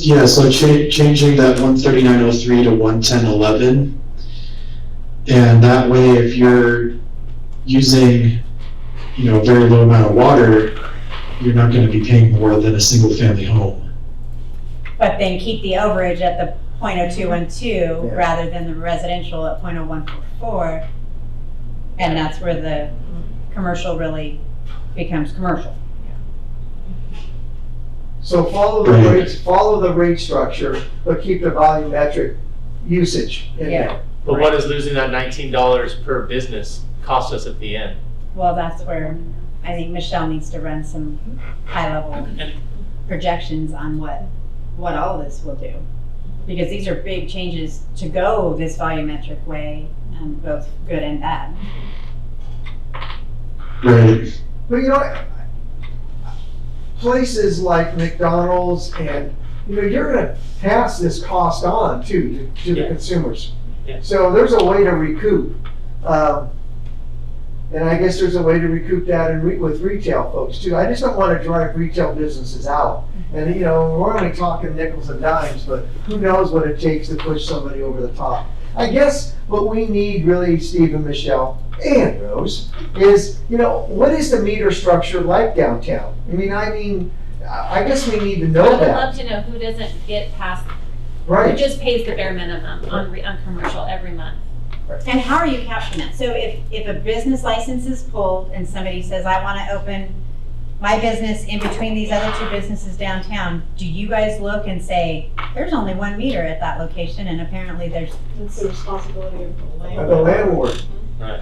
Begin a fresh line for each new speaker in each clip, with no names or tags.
Yeah, so cha- changing that one thirty-nine oh three to one ten eleven. And that way, if you're using, you know, a very low amount of water, you're not gonna be paying more than a single-family home.
But then keep the overage at the point oh two one two
Yeah.
rather than the residential at point oh one four four. And that's where the commercial really becomes commercial.
So follow the
Right.
rate, follow the rate structure, but keep the volumetric usage in there.
But what is losing that nineteen dollars per business cost us at the end?
Well, that's where I think Michelle needs to run some high level projections on what, what all this will do. Because these are big changes to go this volumetric way, um, both good and bad.
Right,
But you know, I- places like McDonald's and, you know, you're gonna pass this cost on too, to, to the
Yeah.
consumers.
Yeah.
So there's a way to recoup. Um, and I guess there's a way to recoup that in re, with retail folks too. I just don't wanna drive retail businesses out. And, you know, we're only talking nickels and dimes, but who knows what it takes to push somebody over the top. I guess what we need really, Steve and Michelle and Rose, is, you know, what is the meter structure like downtown? I mean, I mean, I I guess we need to
I
know
would
that,
love to know who doesn't get past, who
right?
just pays the bare minimum on, re- on commercial every month.
And how are you capturing that? So if, if a business license is pulled and somebody says, I want to open my business in between these other two businesses downtown, do you guys look and say, there's only one meter at that location and apparently there's,
That's the responsibility of the
Of The
landlord.
landlord.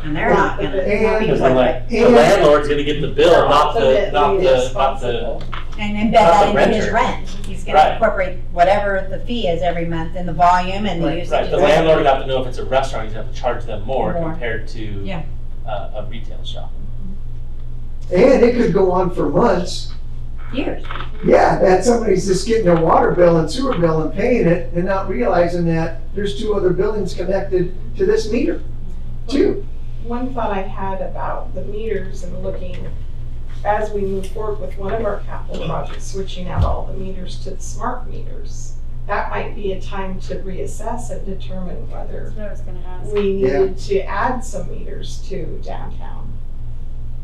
and they're not gonna. not
And-
being
Because I'm like, the
And-
landlord's gonna get the bill, not
So
the,
that
not
we
the, not the,
responsible.
And embed
Not
that
the
into his
renter.
rent. He's gonna
Right.
incorporate whatever the fee is every month and the volume and the
Right,
usage.
right, the
of
landlord would have to know if it's a restaurant, he's gonna have to charge them more
More.
compared to
Yeah.
uh, a retail shop.
And it could go on for months.
Years.
Yeah, that somebody's just getting their water bill and sewer bill and paying it and not realizing that there's two other buildings connected to this meter, too.
One thought I had about the meters and looking, as we move forward with one of our capital projects, switching out all the meters to the smart meters, that might be a time to reassess and determine whether
what I was gonna ask.
we
Yeah.
needed to add some meters to downtown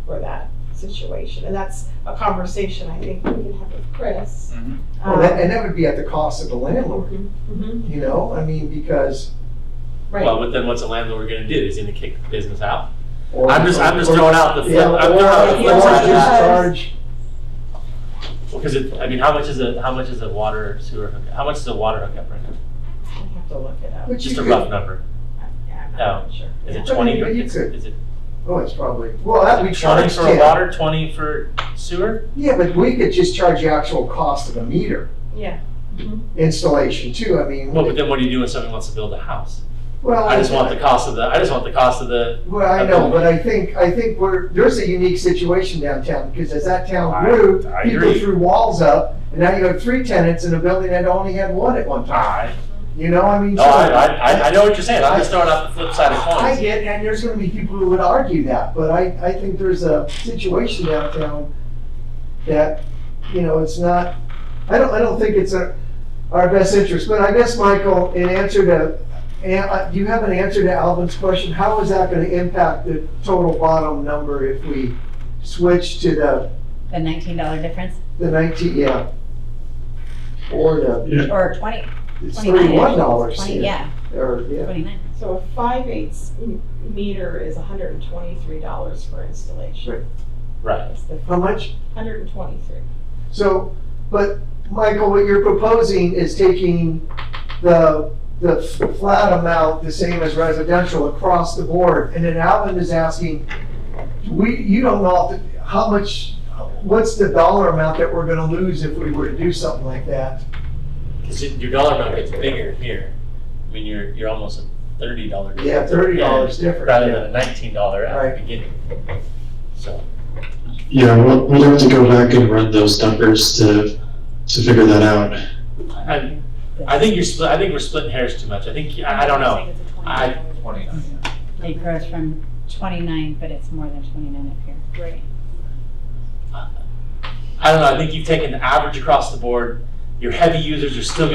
for that situation. And that's a conversation I think we can have with Chris.
Mhm.
Well, that-
Um,
And that would be at the cost of the landlord,
mhm,
you know, I mean, because.
Right.
Well, but then what's a landlord gonna do? He's gonna kick the business out?
or-
I'm just, I'm just
or-
throwing out the flip,
Yeah,
I'm
or-
throwing out the
or
flip side of
just
that.
charge-
Because it, I mean, how much is a, how much is a water sewer hookup? How much is a water hookup right now?
I have to look it up.
but you
Just a
could-
rough number.
Yeah, I'm
Oh.
not sure.
Is it
But I
twenty?
mean,
or-
you
is-
could-
Is it
Oh, it's probably, well, that we
twenty
charge
for
10.
water, twenty for sewer?
Yeah, but we could just charge the actual cost of a meter
Yeah.
installation too, I mean.
Well, but then what do you do when somebody wants to build a house?
well,
I just want the cost of the, I just want the cost of the,
Well, I know, but I think, I think we're, there's a unique situation downtown, because as that town
I-
grew,
I
people
agree.
threw walls up, and now you have three tenants in a building that only had one at one time,
I,
you know, I mean.
no,
so-
oh, I, I, I know what you're saying, I'm just throwing out the flip side
I
of coins.
get, and there's gonna be people who would argue that, but I, I think there's a situation downtown that, you know, it's not, I don't, I don't think it's our, our best interest, but I guess, Michael, in answer to, and, uh, you have an answer to Alvin's question, how is that gonna impact the total bottom number if we switch to the,
The nineteen dollar difference
the nineteen, yeah? Or the,
yeah,
or twenty,
it's
twenty-nine.
thirty-one dollars
Twenty,
here,
yeah,
or, yeah,
twenty-nine.
So a five eighths m- meter is hundred and twenty-three dollars for installation.
Right.
Right,
That's the
how much?
hundred and twenty-three.
So, but Michael, what you're proposing is taking the, the f- flat amount, the same as residential across the board. And then Alvin is asking, we, you don't know if- how much, what's the dollar amount that we're gonna lose if we were to do something like that?
cause your dollar amount gets bigger here, I mean, you're, you're almost a thirty dollar.
Yeah, thirty dollars different.
Rather than a nineteen dollar at
Right.
the beginning. So,
yeah, we'll, we'll have to go back and run those numbers to, to figure that out.
I, I think you're split, I think we're splitting hairs too much, I think, I, I don't know. I,
It grows from twenty-nine, but it's more than twenty-nine up here.
I don't know, I think you've taken the average across the board, your heavy users are still